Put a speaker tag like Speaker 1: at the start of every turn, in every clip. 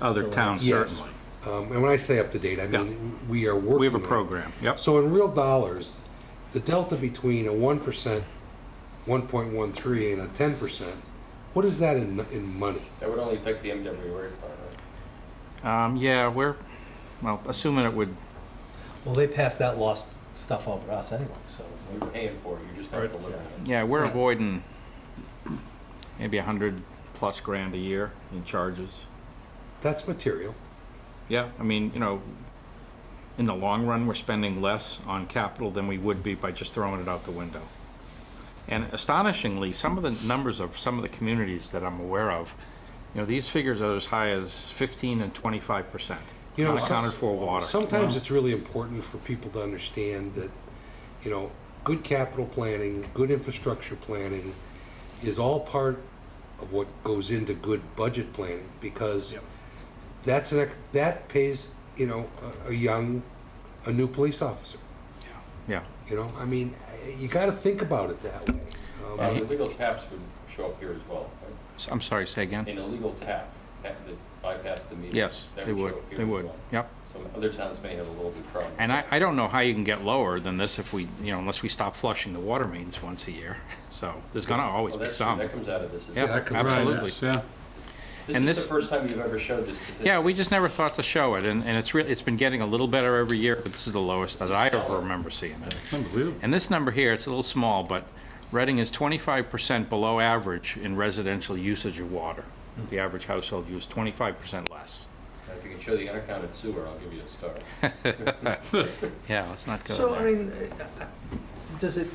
Speaker 1: other towns,
Speaker 2: Yes.
Speaker 1: certainly.
Speaker 2: Um, And when I say up to date, I mean, we are working.
Speaker 1: We have a
Speaker 2: on it.
Speaker 1: program, yep.
Speaker 2: So in real dollars, the delta between a one percent, one point one three, and a ten percent, what is that in, in money?
Speaker 3: That would only affect the MWA part,
Speaker 1: Um, yeah, we're, well, assuming it would,
Speaker 4: Well, they passed that lost stuff over us anyway, so.
Speaker 3: right? You're paying for it, you're just not delivering it.
Speaker 1: yeah, we're
Speaker 4: Right.
Speaker 1: avoiding maybe a hundred plus grand a year in charges.
Speaker 2: That's material.
Speaker 1: Yeah, I mean, you know, in the long run, we're spending less on capital than we would be by just throwing it out the window. And astonishingly, some of the numbers of some of the communities that I'm aware of, you know, these figures are as high as 15 and 25 percent
Speaker 2: You know,
Speaker 1: unaccounted
Speaker 2: some-
Speaker 1: for water.
Speaker 2: Sometimes it's really important for people to understand that, you know, good capital planning, good infrastructure planning is all part of what goes into good budget planning because that's an, ex- that pays, you know, a, a young, a new police officer.
Speaker 1: yeah,
Speaker 2: You know, I mean, you got to think about it that way. Um,
Speaker 3: Uh, the legal taps would show up here as well, right?
Speaker 1: S- I'm sorry, say again.
Speaker 3: An illegal tap, tap that bypassed the meter.
Speaker 1: Yes,
Speaker 3: that
Speaker 1: they would,
Speaker 3: show up here
Speaker 1: they
Speaker 3: as
Speaker 1: would,
Speaker 3: well.
Speaker 1: yep.
Speaker 3: Some other towns may have a little bit problem.
Speaker 1: And I, I don't know how you can get lower than this if we, you know, unless we stop flushing the water mains once a year. So there's gonna always
Speaker 3: Well,
Speaker 1: be
Speaker 3: that's-
Speaker 1: some.
Speaker 3: That comes out of this. as
Speaker 1: Yeah,
Speaker 3: well.
Speaker 2: that comes out of
Speaker 1: absolutely.
Speaker 2: this.
Speaker 5: Yeah.
Speaker 1: and
Speaker 3: This is
Speaker 1: this-
Speaker 3: the first time you've ever showed this statistic.
Speaker 1: Yeah, we just never thought to show it, and, and it's real, it's been getting a little better every year, but this is the lowest that I ever remember seeing it.
Speaker 5: Unbelievable.
Speaker 1: And this number here, it's a little small, but Reading is twenty-five percent below average in residential usage of water. The average household used twenty-five percent less.
Speaker 3: If you can show the unaccounted sewer, I'll give you a star.
Speaker 1: Yeah, let's not go
Speaker 4: So, I
Speaker 1: there.
Speaker 4: mean, uh, uh, does it,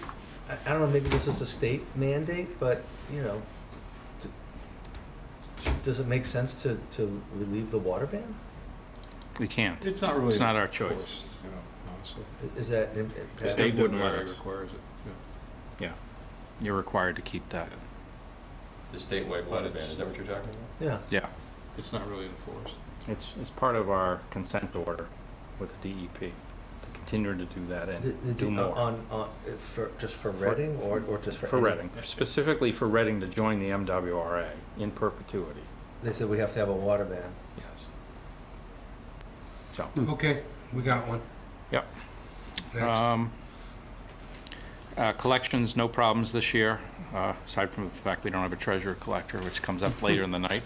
Speaker 4: I I don't know, maybe this is a state mandate, but, you know, d- does it make sense to, to relieve the water ban?
Speaker 1: We can't.
Speaker 5: It's not really.
Speaker 1: It's not our choice.
Speaker 5: forced, you know, honestly.
Speaker 4: I- Is that? an-
Speaker 1: The
Speaker 4: uh,
Speaker 1: state wouldn't let
Speaker 5: Denver
Speaker 1: us.
Speaker 5: Requires it. yeah.
Speaker 1: Yeah. You're required to keep that.
Speaker 3: The statewide water ban, is that what you're talking about?
Speaker 4: Yeah,
Speaker 1: Yeah.
Speaker 5: It's not really enforced.
Speaker 1: It's, it's part of our consent order with the DEP, to continue to do that
Speaker 4: The- the-
Speaker 1: and
Speaker 4: the-
Speaker 1: do more.
Speaker 4: on, on, uh, for, just for Reading or, or just for?
Speaker 1: For
Speaker 4: any-
Speaker 1: Reading, specifically for Reading to join the MWRA in perpetuity,
Speaker 4: They said we have to have a water ban.
Speaker 1: yes. So,
Speaker 2: Okay, we got one.
Speaker 1: yep.
Speaker 2: Next.
Speaker 1: Um, uh, Collections, no problems this year, uh, aside from the fact we don't have a treasurer collector, which comes up later in the night.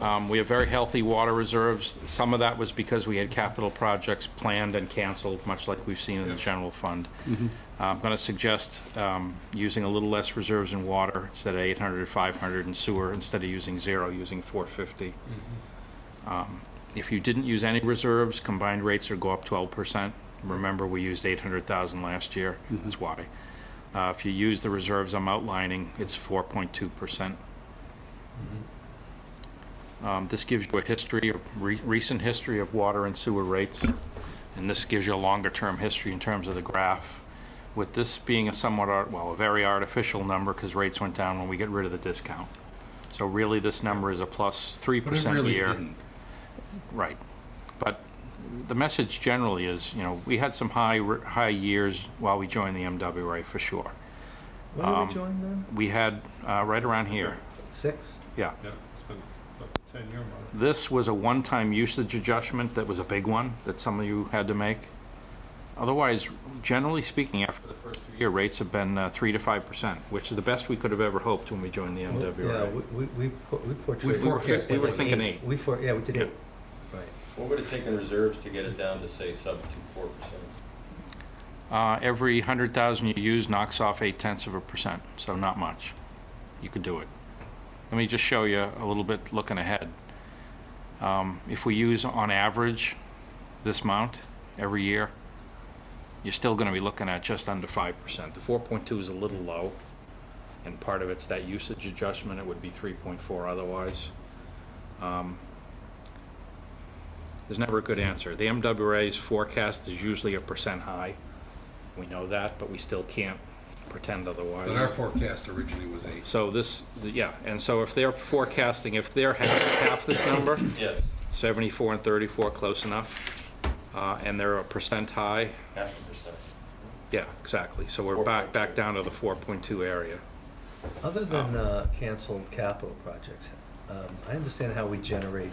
Speaker 1: Um, We have very healthy water reserves. Some of that was because we had capital projects planned and canceled, much like we've seen in the general fund. Uh, I'm going to suggest um, using a little less reserves in water, instead of 800 or 500 in sewer, instead of using zero, using 450. Um, If you didn't use any reserves, combined rates would go up 12%. Remember, we used 800,000 last year,
Speaker 2: Mm-hmm.
Speaker 1: that's why. Uh, If you use the reserves I'm outlining, it's 4.2%.
Speaker 2: Mm-hmm.
Speaker 1: Um, This gives you a history, a re- recent history of water and sewer rates, and this gives you a longer-term history in terms of the graph. With this being a somewhat, art- well, a very artificial number, because rates went down when we get rid of the discount. So really, this number is a plus 3%
Speaker 2: But it
Speaker 1: year.
Speaker 2: really didn't.
Speaker 1: Right. But the message generally is, you know, we had some high, high years while we joined the MWA for sure.
Speaker 4: When did
Speaker 1: Um,
Speaker 4: we join them?
Speaker 1: We had, uh, right around here,
Speaker 4: Six?
Speaker 1: yeah.
Speaker 5: Yeah, it's been up to ten year mark.
Speaker 1: This was a one-time usage adjustment that was a big one that some of you had to make. Otherwise, generally speaking, after the first year, rates have been uh, 3 to 5%, which is the best we could have ever hoped when we joined the
Speaker 4: Yeah,
Speaker 1: MWA.
Speaker 4: we, we, we por- we portrayed.
Speaker 2: forecast
Speaker 1: We were
Speaker 4: like
Speaker 1: thinking eight.
Speaker 4: We for, yeah, we did
Speaker 1: Yeah.
Speaker 4: eight, right.
Speaker 3: What would it take in reserves to get it down to, say, sub to four percent?
Speaker 1: Uh, Every 100,000 you use knocks off 8 tenths of a percent, so not much. You could do it. Let me just show you a little bit looking ahead. Um, If we use on average this amount every year, you're still going to be looking at just under 5%. The 4.2 is a little low, and part of it's that usage adjustment, it would be 3.4 otherwise. Um, There's never a good answer. The MWA's forecast is usually a percent high. We know that, but we still can't pretend otherwise.
Speaker 2: But our forecast originally was eight.
Speaker 1: So this, yeah, and so if they're forecasting, if they're half, half this number,
Speaker 3: Yes,
Speaker 1: 74 and 34, close enough, uh, and they're a percent high,
Speaker 3: half a percent.
Speaker 1: yeah, exactly. So we're back, back down to the 4.2 area.
Speaker 4: Other than uh, canceled capital projects, um, I understand how we generate